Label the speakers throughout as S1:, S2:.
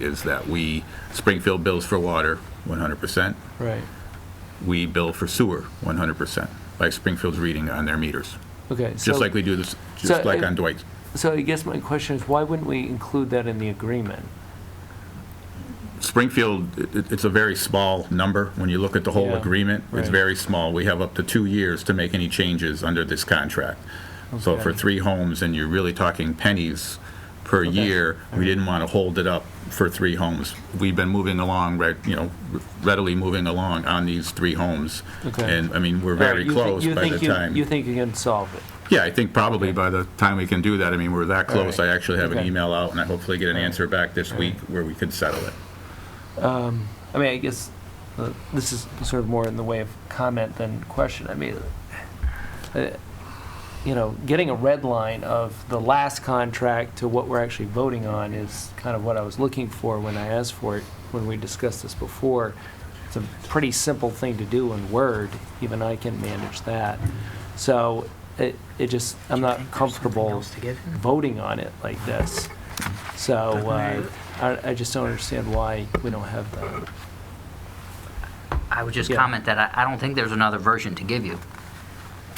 S1: is that we, Springfield bills for water 100%,
S2: Right,
S1: we bill for sewer 100%, like Springfield's reading on their meters,
S2: okay.
S1: just
S2: so-
S1: like we do this,
S2: so
S1: just like
S2: if-
S1: on Dwight's.
S2: So I guess my question is, why wouldn't we include that in the agreement?
S1: Springfield, it- it- it's a very small number. When you look at the whole
S2: Yeah,
S1: agreement, it's
S2: right.
S1: very small. We have up to two years to make any changes under this contract. So for
S2: Okay.
S1: three homes, and you're really talking pennies per year, we didn't want to hold it up for three homes. We've been moving along, right, you know, readily moving along on these three homes.
S2: Okay.
S1: And, I mean, we're
S2: Right,
S1: very
S2: you thi-
S1: close
S2: you
S1: by the
S2: think you- You
S1: time.
S2: think you can solve it?
S1: Yeah, I think probably by the time we can do that, I mean, we're that close.
S2: right.
S1: I actually have an
S2: Okay.
S1: email out, and I hopefully get an answer back this week where we could settle it.
S2: I mean, I guess uh, this is sort of more in the way of comment than question. I mean, uh, you know, getting a red line of the last contract to what we're actually voting on is kind of what I was looking for when I asked for it, when we discussed this before. It's a pretty simple thing to do in Word, even I can manage that. So it, it just, I'm not comfortable voting on it like this. So uh, I, I just don't understand why we don't have that.
S3: I would just
S2: Yeah.
S3: comment that I, I don't think there's another version to give you.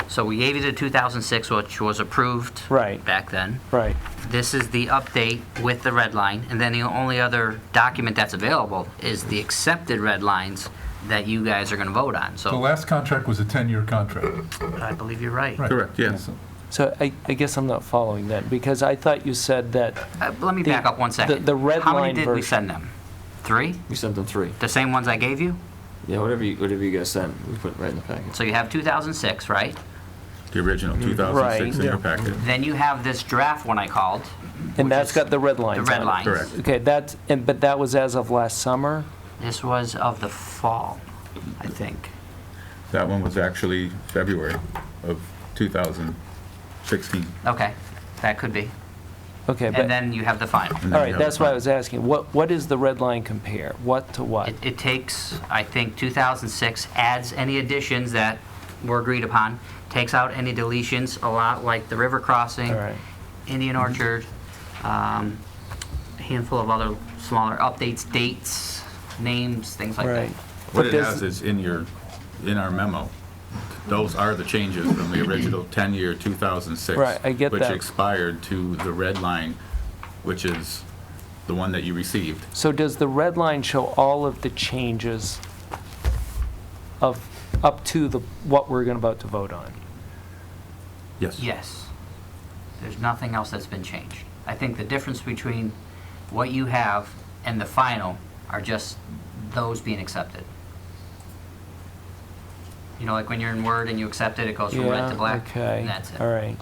S3: So we gave you the 2006, which was approved.
S2: Right.
S3: Back then.
S2: Right,
S3: This is the update with the red line, and then the only other document that's available is the accepted red lines that you guys are gonna vote on,
S4: The
S3: so
S4: last contract was a 10-year contract.
S3: I believe you're right.
S4: Right.
S1: Correct, yeah.
S4: So-
S2: so I, I guess I'm not following that, because I thought you said that,
S3: Uh, Let me
S2: The-
S3: back up one
S2: the-
S3: second.
S2: the red
S3: How
S2: line
S3: many did we
S2: version.
S3: send them? Three?
S5: We sent them three.
S3: The same ones I gave you?
S5: Yeah, whatever you, whatever you guys sent, we put right in the package.
S3: So you have 2006, right?
S1: The original, 2006 in your packet.
S3: Then you have this draft one I called,
S2: and that's got the red
S3: the
S2: lines
S3: red
S2: on it.
S3: lines.
S1: Correct.
S2: Okay, that's, and, but that was as of last summer?
S3: This was of the fall, I think.
S1: That one was actually February of 2016.
S3: Okay, that could be.
S2: Okay,
S3: And
S2: but,
S3: then you have the final.
S1: And then
S2: all
S1: you
S2: right,
S1: have
S2: that's
S1: the
S2: why I was asking, what, what does the red line compare? What to what?
S3: It, it takes, I think, 2006, adds any additions that were agreed upon, takes out any deletions, a lot like the river crossing,
S2: All right. Mm-hmm.
S3: Indian Orchard, um, a handful of other smaller updates, dates, names, things like that.
S2: Right.
S1: What
S2: But
S1: it
S2: does-
S1: has is in your, in our memo, those are the changes from the original 10-year 2006.
S2: Right, I get
S1: Which
S2: that.
S1: expired to the red line, which is the one that you received.
S2: So does the red line show all of the changes of, up to the, what we're gonna about to vote on?
S1: Yes.
S3: Yes. There's nothing else that's been changed. I think the difference between what you have and the final are just those being accepted. You know, like when you're in Word and you accept it, it goes from red to black.
S2: Yeah, okay.
S3: and That's it.
S2: All right.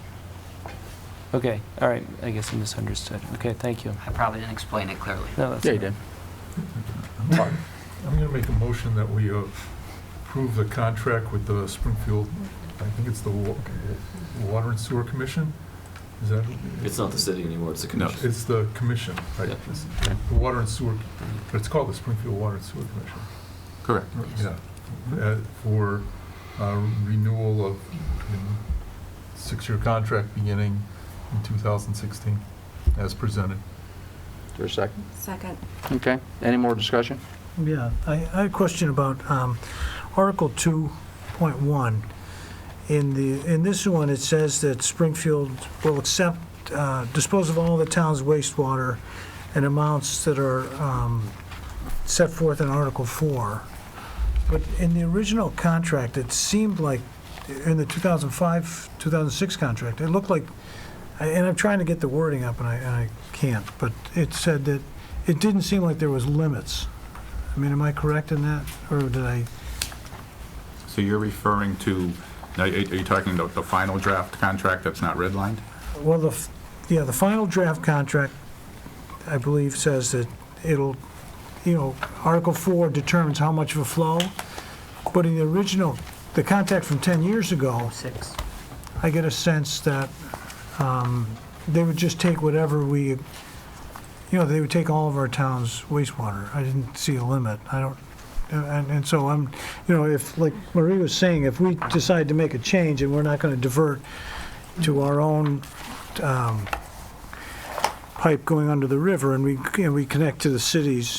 S2: Okay, all right, I guess I misunderstood. Okay, thank you.
S3: I probably didn't explain it clearly.
S2: No, that's. all right.
S4: I'm going to make a motion that we uh, approve the contract with the Springfield, I think it's the Wa- Water and Sewer Commission? Is that,
S5: It's not the city anymore, it's the commission.
S4: it's the commission, right?
S5: Yeah.
S4: It's The Water and Sewer, but it's called the Springfield Water and Sewer Commission.
S1: Correct.
S4: Yeah, Uh, for uh, renewal of um, six-year contract beginning in 2016, as presented.
S6: Is there a second?
S7: Second.
S6: Okay, any more discussion?
S8: Yeah, I, I had a question about um, Article 2.1. In the, in this one, it says that Springfield will accept, uh, dispose of all the town's wastewater in amounts that are um, set forth in Article 4. But in the original contract, it seemed like, in the 2005, 2006 contract, it looked like, and I'm trying to get the wording up and I, and I can't, but it said that, it didn't seem like there was limits. I mean, am I correct in that, or did I?
S1: So you're referring to, now, are are you talking about the final draft contract that's not redlined?
S8: Well, the, f- yeah, the final draft contract, I believe, says that it'll, you know, Article 4 determines how much of a flow, but in the original, the contract from 10 years ago,
S3: Six.
S8: I get a sense that um, they would just take whatever we, you know, they would take all of our town's wastewater. I didn't see a limit. I don't, and, and so I'm, you know, if, like Marie was saying, if we decide to make a change and we're not going to divert to our own um, pipe going under the river, and we, and we connect to the city's